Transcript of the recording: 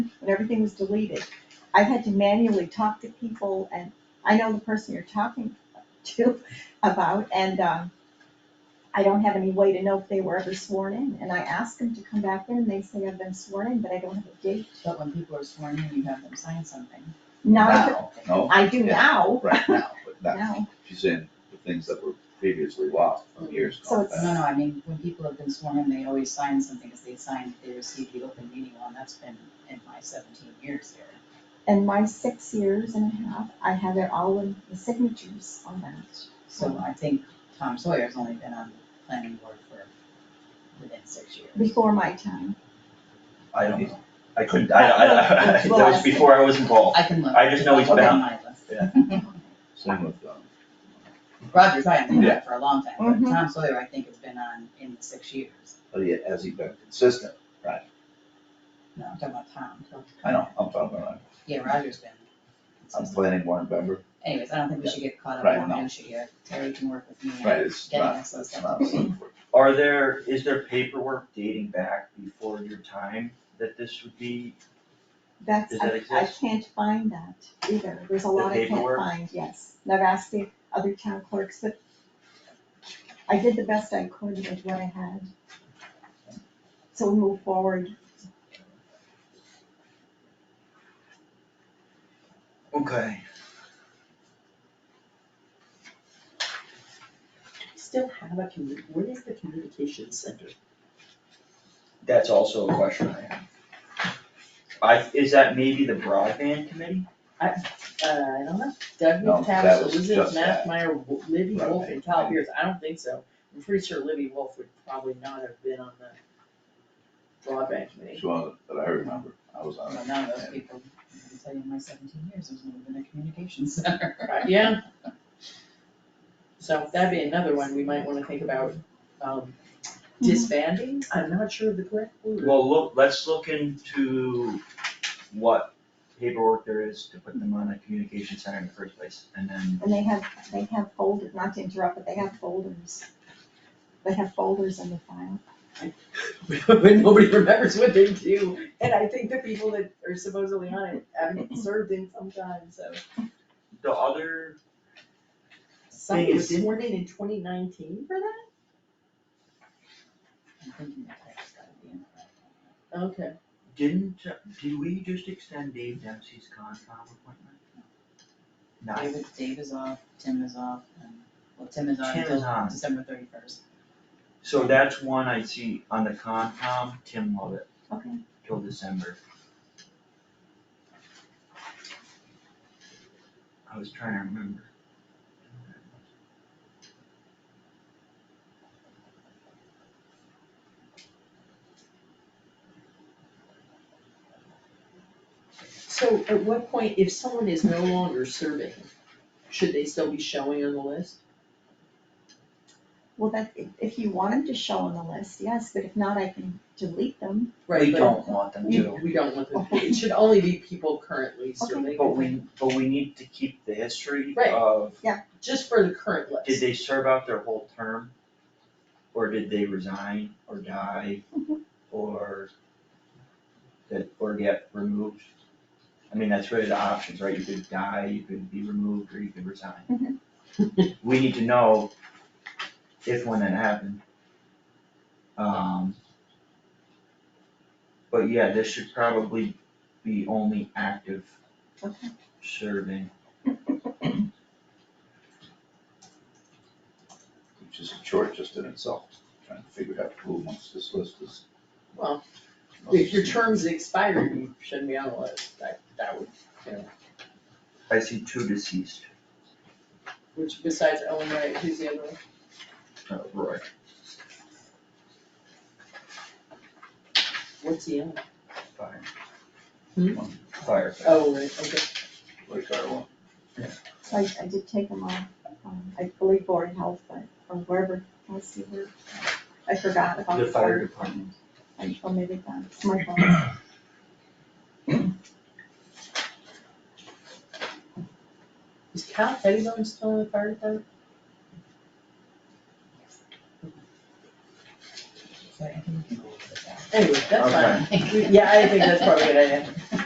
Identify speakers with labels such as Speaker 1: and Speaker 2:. Speaker 1: everything was deleted. I've had to manually talk to people and I know the person you're talking to about and, um, I don't have any way to know if they were ever sworn in and I ask them to come back in and they say I've been sworn in, but I don't have a date.
Speaker 2: But when people are sworn in, you have them sign something.
Speaker 1: Now,
Speaker 2: Wow.
Speaker 3: No,
Speaker 1: I do
Speaker 3: Yeah.
Speaker 1: now,
Speaker 3: right now, but not,
Speaker 1: now,
Speaker 3: she's in the things that were previously lost from years
Speaker 1: So
Speaker 3: gone
Speaker 1: it's-
Speaker 2: No,
Speaker 3: back.
Speaker 2: no, I mean, when people have been sworn in, they always sign something, because they signed, they received the open meeting law, and that's been in my seventeen years here.
Speaker 1: in my six years and a half, I have it all in the signatures on that.
Speaker 2: So I think Tom Sawyer's only been on the planning board for within six years.
Speaker 1: Before my time,
Speaker 4: I don't know. I couldn't, I, I, I- that was before I was involved.
Speaker 2: I can look.
Speaker 4: I just know he's
Speaker 2: I'll
Speaker 4: been
Speaker 2: get
Speaker 4: on.
Speaker 2: my list.
Speaker 3: Same with, um,
Speaker 2: Roger's, I haven't been on
Speaker 3: Yeah.
Speaker 2: it for a long time, but
Speaker 1: Mhm.
Speaker 2: Tom Sawyer, I think, has been on in the six years.
Speaker 3: but he- has he been consistent?
Speaker 2: No, I'm talking about Tom.
Speaker 3: I know, I'm talking about,
Speaker 2: Yeah, Roger's been.
Speaker 3: I'm planning one member,
Speaker 2: Anyways, I don't think we should get caught up
Speaker 3: Right,
Speaker 2: in
Speaker 3: no.
Speaker 2: minutia here. Terry can work with me on
Speaker 3: right, it's
Speaker 2: getting
Speaker 3: not,
Speaker 2: us those
Speaker 3: it's
Speaker 2: stuff.
Speaker 3: not.
Speaker 4: Are there, is there paperwork dating back before your time that this would be?
Speaker 1: that's,
Speaker 4: Does that
Speaker 1: I, I
Speaker 4: exist?
Speaker 1: can't find that either, there's a
Speaker 4: The
Speaker 1: lot I can't
Speaker 4: paperwork?
Speaker 1: find, yes, and I've asked the other town clerks, but I did the best I could with what I had. So we move forward,
Speaker 4: Okay.
Speaker 5: Still have a commu, where is the communication center?
Speaker 4: That's also a question I have. I, is that maybe the broadband committee?
Speaker 5: Uh, I don't know, Doug
Speaker 3: No, that
Speaker 5: Newcastle,
Speaker 3: was
Speaker 5: Elizabeth
Speaker 3: just that.
Speaker 5: Mathmeyer, Wo- Libby
Speaker 3: Right,
Speaker 5: Wolf and
Speaker 3: right.
Speaker 5: Kyle Pierce, I don't think so. I'm pretty sure Libby Wolf would probably not have been on the broadband committee.
Speaker 3: It's one that I remember, I was on
Speaker 2: Well,
Speaker 3: it.
Speaker 2: none of Oh, those
Speaker 3: and-
Speaker 2: people, I can tell you in my seventeen years, there's never been a communications center.
Speaker 5: Yeah. So that'd be another one we might wanna think about, um, disbanding, I'm not sure of the correct word.
Speaker 4: Well, look, let's look into what paperwork there is to put them on a communication center in the first place, and then
Speaker 1: and they have, they have folders, not to interrupt, but they have folders. They have folders in the file.
Speaker 5: when nobody remembers what they do. And I think the people that are supposedly on it haven't served in some time, so.
Speaker 4: the other,
Speaker 5: Somebody was
Speaker 4: Thing is-
Speaker 5: sworn in in twenty nineteen for that?
Speaker 2: I'm thinking that that's gotta be in there.
Speaker 5: Okay.
Speaker 4: didn't, did we just extend Dave Dempsey's Concom appointment? Not,
Speaker 2: David, Dave is off, Tim is off, and, well, Tim is on
Speaker 4: Tim is
Speaker 2: until
Speaker 4: on.
Speaker 2: December thirty first.
Speaker 4: so that's one I see on the Concom, Tim Lovett
Speaker 1: Okay.
Speaker 4: till December. I was trying to remember.
Speaker 5: So at what point, if someone is no longer serving, should they still be showing on the list?
Speaker 1: Well, that, if- if you want them to show on the list, yes, but if not, I can delete them.
Speaker 5: Right,
Speaker 4: We
Speaker 5: but
Speaker 4: don't want them
Speaker 5: You,
Speaker 4: to,
Speaker 5: we don't want them, it should only be people currently
Speaker 1: Okay.
Speaker 5: serving.
Speaker 4: but we, but we need to keep the history
Speaker 5: Right.
Speaker 4: of,
Speaker 5: Just for the current
Speaker 4: did
Speaker 5: list.
Speaker 4: they serve out their whole term? Or did they resign or die or that, or get removed? I mean, that's really the options, right? You could die, you could be removed, or you could resign. We need to know if when that happened. Um. But yeah, this should probably be only active
Speaker 1: Okay.
Speaker 4: serving.
Speaker 3: Which is a chore just in itself, trying to figure out who amongst this list is.
Speaker 5: Well, If your term's expired, you shouldn't be on the list, that, that would, you know,
Speaker 4: I see two deceased,
Speaker 5: which besides Ellen Wright, who's the other one?
Speaker 4: uh, Roy.
Speaker 5: What's he on?
Speaker 4: Fire.
Speaker 5: Hmm?
Speaker 4: Fire.
Speaker 5: Oh, right, okay.
Speaker 3: Like our one.
Speaker 1: So I, I did take them off, um, I believe Board of Health, but, or wherever, let's see where, I forgot about
Speaker 4: The
Speaker 1: the
Speaker 4: fire
Speaker 1: fire
Speaker 4: department.
Speaker 1: I omitted that, it's my fault.
Speaker 5: Is Cal Pettibone still in the fire department?
Speaker 2: So I think we can go over that.
Speaker 5: Anyway, that's
Speaker 4: Okay.
Speaker 5: fine. We- Yeah, I think that's probably a good idea.